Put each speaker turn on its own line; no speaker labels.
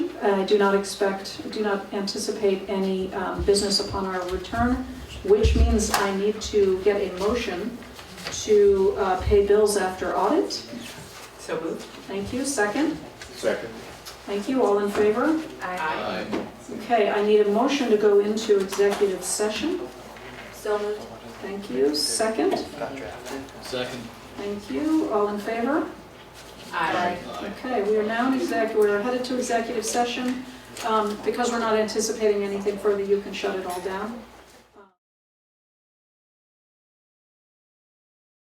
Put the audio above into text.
And I Uh, do not expect, do not anticipate any um, business upon our return, which means I need to get a motion to uh, pay bills after audit.
So moved.
Thank you. Second?
Second.
Thank you. All in favor?
Aye.
Okay, I need a motion to go into executive session.
So moved.
Thank you. Second?
Second.
Thank you. All in favor?
Aye.
Aye.
Okay, we are now in exec, we're headed to executive session. Um, Because we're not anticipating anything further, you can shut it all down.